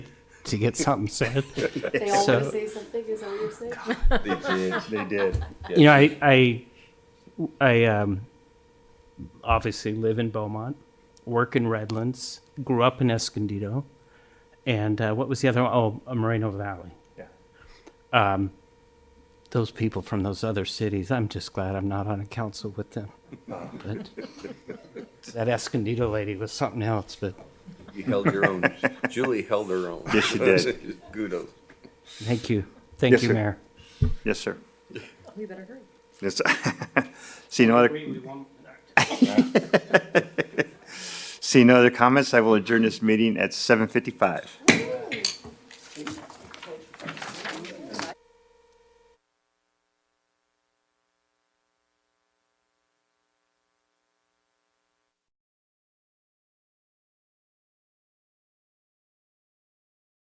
to get something said. They all want So- to say something, is that what you're saying? They did. They did. You know, I, I, I um, obviously live in Beaumont, work in Redlands, grew up in Escondido, and uh, what was the other one? Oh, uh, Moreno Valley. Yeah. Um, those people from those other cities, I'm just glad I'm not on a council with them. But that Escondido lady was something else, but You held your own. Julie held her own. Yes, she did. Kudos. thank you. Thank Yes, you, sir. Mayor. Yes, sir. We better hurry. Yes. See no other, see no other comments. I will adjourn this meeting at 7:55.